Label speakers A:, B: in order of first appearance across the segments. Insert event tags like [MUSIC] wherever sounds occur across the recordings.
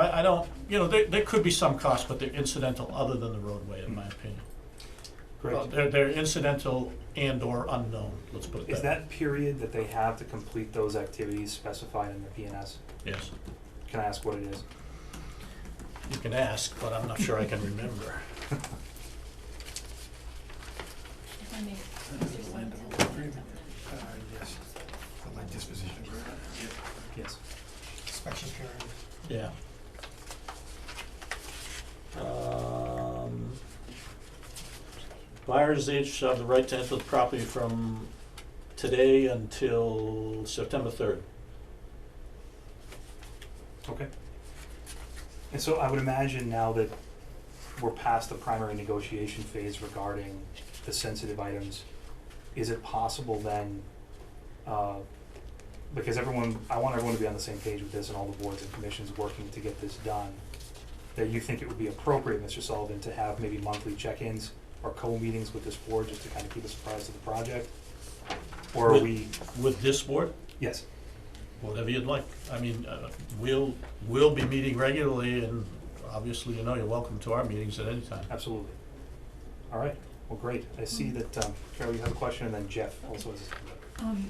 A: I, I don't, you know, there, there could be some costs, but they're incidental other than the roadway, in my opinion. Uh,
B: Correct.
A: They're, they're incidental and/or unknown, let's put it
B: Is
A: that way.
B: that period that they have to complete those activities specified in the PNS?
A: Yes,
B: Can I ask what it is?
A: you can ask, but I'm not sure I can remember.
C: If I may, Mr. Swinton.
D: Uh, yes, for land disposition,
B: Yes.
D: special period.
A: Yeah. Um, Buyers each shall have the right to enter the property from today until September third.
B: Okay. And so I would imagine now that we're past the primary negotiation phase regarding the sensitive items, is it possible then, uh, because everyone, I want everyone to be on the same page with this and all the boards and commissions working to get this done, that you think it would be appropriate, Mr. Sullivan, to have maybe monthly check-ins or co-meetings with this board just to kind of keep us apprised of the project? Or are
A: With-
B: we,
A: With this board,
B: yes,
A: whatever you'd like. I mean, uh, we'll, we'll be meeting regularly and obviously, you know, you're welcome to our meetings at any time.
B: Absolutely. All right, well, great. I see that, um, Carol, you have a question, and then Jeff also has.
C: Um,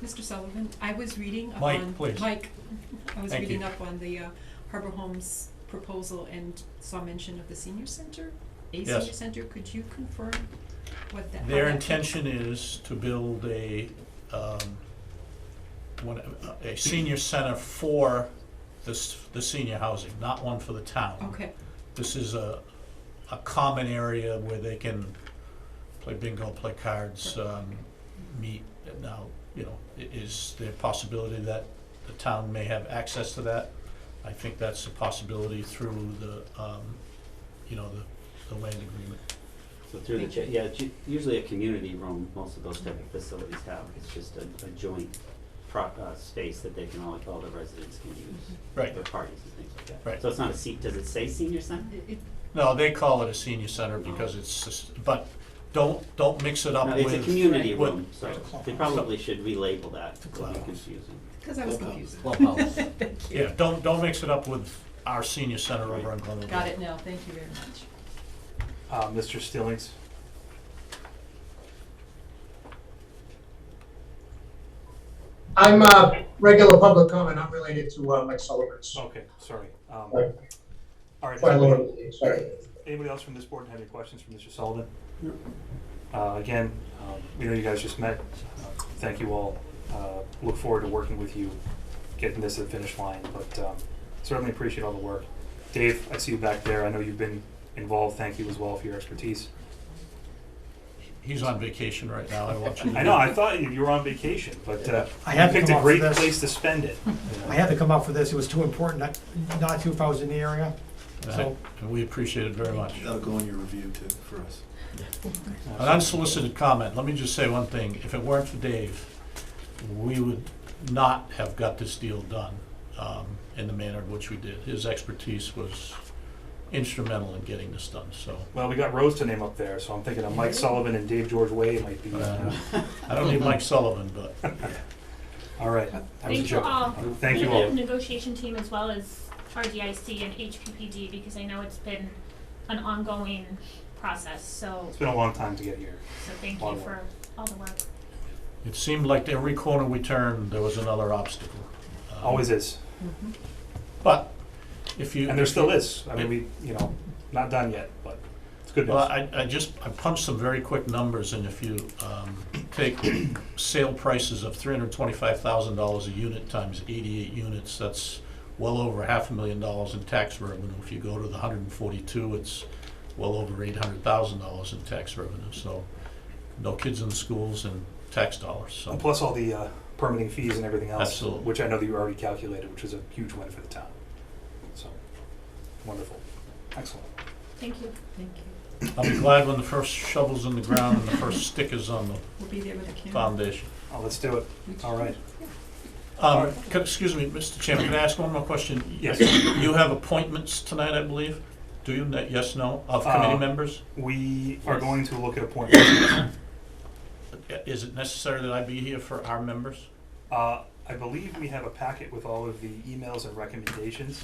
C: Mr. Sullivan, I was reading up
A: Mike,
C: on.
A: please.
C: Mike, I was
A: Thank
C: reading
A: you.
C: up on the uh, Harbor Homes proposal and saw mention of the senior center, a
A: Yes.
C: senior center. Could you confirm what that? how
A: Their
C: that-
A: intention is to build a, um, one, a senior center for this, the senior housing, not one for the town.
C: Okay,
A: This is a, a common area where they can play bingo, play cards, um, meet. Now, you know, i- is there a possibility that the town may have access to that? I think that's a possibility through the, um, you know, the, the land agreement.
E: So through the,
C: Thank you.
E: cha- yeah, it's u- usually a community room, most of those type of facilities have, it's just a, a joint pro, uh, space that they can all, all the residents can use
C: Mm-hmm.
A: Right.
E: for parties and things like that.
A: Right.
E: So it's not a seat, does it say senior center?
C: It- it-
A: No, they call it a senior center because it's, just- but don't, don't mix it up
E: No,
A: with.
E: it's a community
A: with-
E: room, so
D: Right.
E: they probably should relabel that,
A: The
E: it would be
A: clubhouse.
E: confusing.
C: Cause I was confused. [LAUGHS] Thank you.
A: Yeah, don't, don't mix it up with our senior center over
E: Right.
A: on Glenwood.
C: Got
A: Road.
C: it now. Thank you very much.
B: Uh, Mr. Stillings,
F: I'm uh, regular public comment, not related to uh, Mike Sullivan's.
B: okay, sorry. Um,
F: Right.
B: All right,
F: Quite a lot
B: anybody,
F: of sorry.
B: anybody else from this board have any questions for Mr. Sullivan?
E: No.
B: Uh, again, um, we know you guys just met, Uh, thank you all, uh, look forward to working with you, getting this to the finish line, but, um, certainly appreciate all the work. Dave, I see you back there, I know you've been involved, thank you as well for your expertise.
A: He's on vacation right now, I watch him.
B: I know. I thought you, you were on vacation, but uh,
D: I
B: you
D: had to
B: picked
D: come
B: a
D: up with
B: great
D: this.
B: place to spend
D: [LAUGHS]
B: it. you know.
D: I had to come out for this, it was too important not, not to if I was in the area. So-
A: And we appreciate it very much.
G: That'll go in your review too, for us.
A: An unsolicited comment, let me just say one thing, if it weren't for Dave, we would not have got this deal done um, in the manner in which we did. His expertise was instrumental in getting this done, so
B: Well, we got Rose to name up there, so I'm thinking of Mike Sullivan and Dave George Wade might be.
A: Uh,
D: Uh-huh.
A: I don't need
B: [LAUGHS]
A: Mike Sullivan, but
B: all right. That was a
H: Thank you
B: joke.
H: all.
B: Thank you
H: the
B: all.
H: negotiation team as well as RDIC and HPPD, because I know it's been an ongoing process, so,
B: It's been a long time to get here.
H: so thank
B: Lot
H: you
B: of
H: for all the work.
A: it seemed like every corner we turned, there was another obstacle. Um,
D: Uh-huh.
B: Always is,
A: But if you.
B: and there
A: if
B: still
A: you-
B: is. I mean, we you know not done yet, but it's good
A: Well,
B: news.
A: I, I just, I punched some very quick numbers, and if you um, take sale prices of three hundred twenty-five thousand dollars a unit times eighty-eight units, that's well over half a million dollars in tax revenue. If you go to the hundred and forty-two, it's well over eight hundred thousand dollars in tax revenue, so no kids in the schools and tax dollars, so.
B: And plus all the uh, permitting fees and everything else,
A: Absolutely.
B: which I know that you already calculated, which is a huge win for the town. So wonderful, excellent.
H: Thank you.
C: Thank you.
A: I'll be glad when the first shovel's in the ground and the first stick is on the
C: We'll be there with a camera.
A: foundation.
B: Oh, let's do it. All right.
A: Um, c- excuse me, Mr. Chairman, can I ask one more question?
B: Yes.
A: You have appointments tonight, I believe? Do you, Ne- yes, no, of committee
B: Uh,
A: members?
B: We are
E: Yes.
B: going to look at appointments.
A: Is it necessary that I be here for our members?
B: Uh, I believe we have a packet with all of the emails and recommendations.